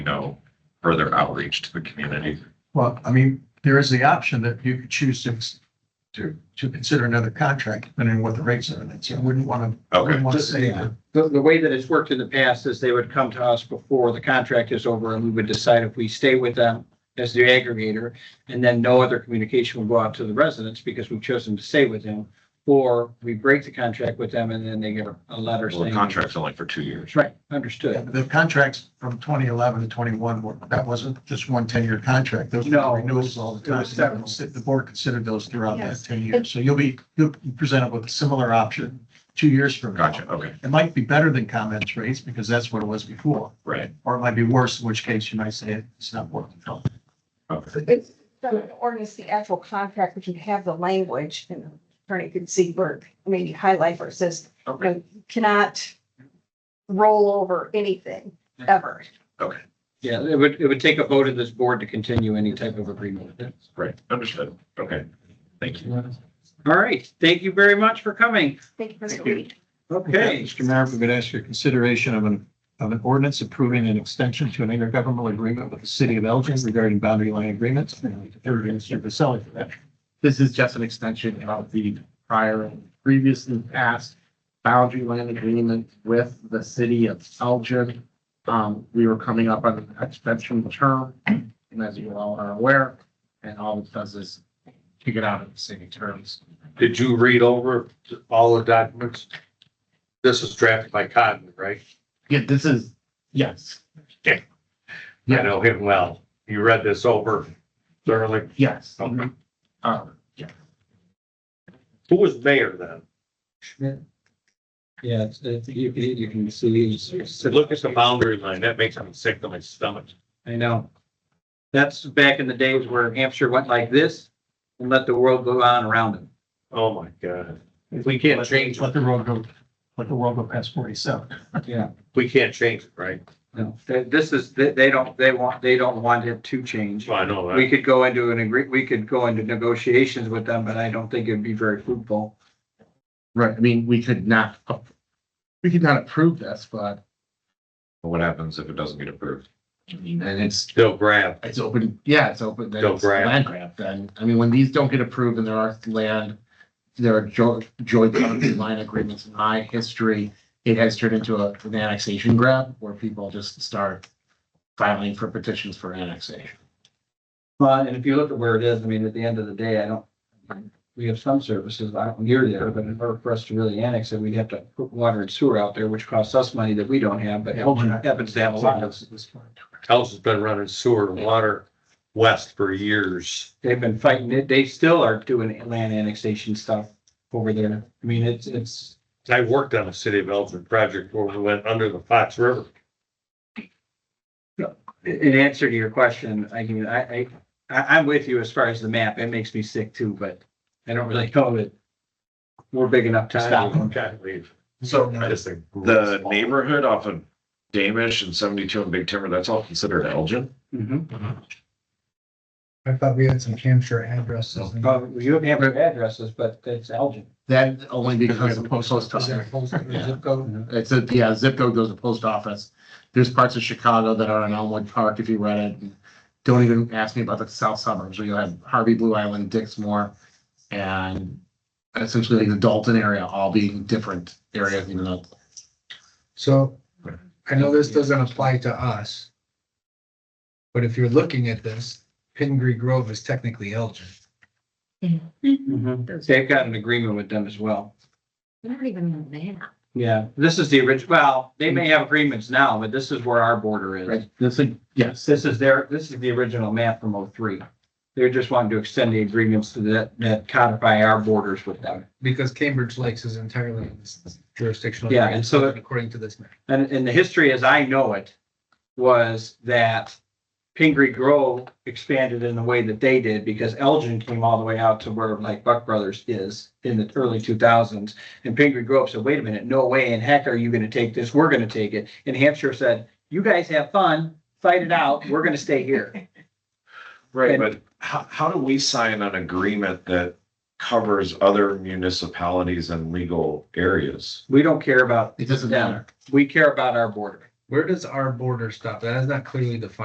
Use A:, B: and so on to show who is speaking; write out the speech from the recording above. A: know, further outreach to the community.
B: Well, I mean, there is the option that you could choose to, to, to consider another contract, depending on what the rates are, and so I wouldn't want to,
A: Okay,
B: wouldn't want to
C: Just-
B: say
C: yeah.
B: that.
C: The, the way that it's worked in the past is they would come to us before the contract is over and we would decide if we stay with them as the aggregator. And then no other communication will go out to the residents because we've chosen to stay with them. Or we break the contract with them and then they get a- a letter
A: well, the
C: saying.
A: contract's only for two years.
C: Right,
B: Yeah,
C: understood.
B: but The contracts from twenty eleven to twenty one were, that wasn't just one 10 year contract. Those
C: No,
B: were renewals all the
C: it was
B: time. The board considered those throughout that
D: Yes.
B: ten years. So you'll be, you'll be presented with a similar option two years from now.
A: Gotcha, okay,
B: It might be better than comments rates because that's what it was before,
A: right.
B: or it might be worse, in which case you might say it's not worth it.
A: Okay.
D: It's the ordinance, the actual contract, which would have the language and the attorney could see where, maybe highlight where it says, you
A: Okay,
D: know, you cannot roll over anything ever.
C: Yeah, it would, it would take a vote of this board to continue any type of agreement with them.
A: right, understood. Okay, thank you.
C: All right, thank you very much for coming.
D: Thank you for
A: Thank you.
D: speaking.
C: Okay.
B: Mr. Mayor, we would ask your consideration of an, of an ordinance approving an extension to an intergovernmental agreement with the city of Elgin regarding boundary line agreements. And Third, Mr. Vasselli for that.
E: This is just an extension of the prior and previously passed boundary land agreement with the city of Elgin. Um, we were coming up on an extension term, and as you all are aware, and all it does is kick it out of the city terms.
F: Did you read over all the documents? This is drafted by Cotton, right?
E: Yeah, this is, yes,
F: I know him well. You read this over thoroughly.
E: yes.
F: Okay.
E: Uh,
F: Who was mayor then?
C: Yeah, it's- it's- you, you you can see. it's-
F: Look at the boundary line. That makes me sick to my stomach.
C: I know. That's back in the days where Hampshire went like this and let the world go on around them.
F: Oh, my God.
B: If
F: We can't change, it.
B: Let the road go, let the world go past forty-seven.
C: Yeah.
F: we can't change it, right?
C: No, th- this is, they, they don't, they want, they don't want it to change.
F: Well, I know
C: We
F: that.
C: could go into an agree, we could go into negotiations with them, but I don't think it'd be very fruitful.
E: right, I mean, we could not, ap- we could not approve this, but,
A: What happens if it doesn't get approved?
E: I mean, then it's
F: Still grab.
E: It's open, yeah, it's open, then
F: Don't
E: it's
F: grab.
E: land grab then. I mean, when these don't get approved and there are land, there are joint, joint boundary line agreements in my history, it has turned into a, an annexation grab where people just start filing for petitions for annexation.
C: Well, and if you look at where it is, I mean, at the end of the day, I don't, we have some services out near there, but in order for us to really annex it, we'd have to put water and sewer out there, which costs us money that we don't have, but Elgin happens to have a lot of.
F: House has been running sewer and water west for years.
C: they've been fighting it. They still are doing land annexation stuff over there. I mean, it's, it's,
F: I worked on a city of Elgin project where we went under the Fox River.
C: in answer to your question, I mean, I, I, I, I'm with you as far as the map. It makes me sick too, but I don't really know that we're big enough to stop them.
F: Can't leave.
A: So
F: I just think-
A: the neighborhood off of Damish and seventy-two and Big Timber, that's all considered Elgin?
C: Mhm.
G: I thought we had some Hampshire addresses. and-
C: Well, uh, you have your addresses, but it's Elgin.
E: That only
B: we
E: because
B: have
E: of
B: a
E: the
B: post
E: post office. Mm-hmm.
B: Zip code?
E: It's a, yeah, zip code goes to post office. There's parts of Chicago that are in Elmwood Park, if you read it. Don't even ask me about the south suburbs, where you'll have Harvey, Blue Island, Dixmoor, and essentially the Dalton area, all being different areas, even though
G: So I know this doesn't apply to us. But if you're looking at this, Hidden Creek Grove is technically Elgin.
C: Mm-hmm. They've got an agreement with them as well.
D: They're not even on the map.
C: Yeah, this is the original, well, they may have agreements now, but this is where our border is.
E: Right, this, is- yes,
C: This is their, this is the original map from oh three. They're just wanting to extend the agreements to that, that codify our borders with them.
G: Because Cambridge Lakes is entirely in this jurisdictional.
C: Yeah,
G: area,
C: and so-
G: According to this map.
C: And, and the history as I know it was that Pingree Grove expanded in the way that they did because Elgin came all the way out to where like Buck Brothers is in the early two thousands. And Pingree Grove said, wait a minute, no way in heck are you gonna take this? We're gonna take it. And Hampshire said, you guys have fun, fight it out. We're gonna stay here.
A: Right, but how, how do we sign an agreement that covers other municipalities and legal areas?
C: We don't care about,
E: it doesn't matter.
C: we care about our border.
G: Where does our border stop? That is not clearly defined.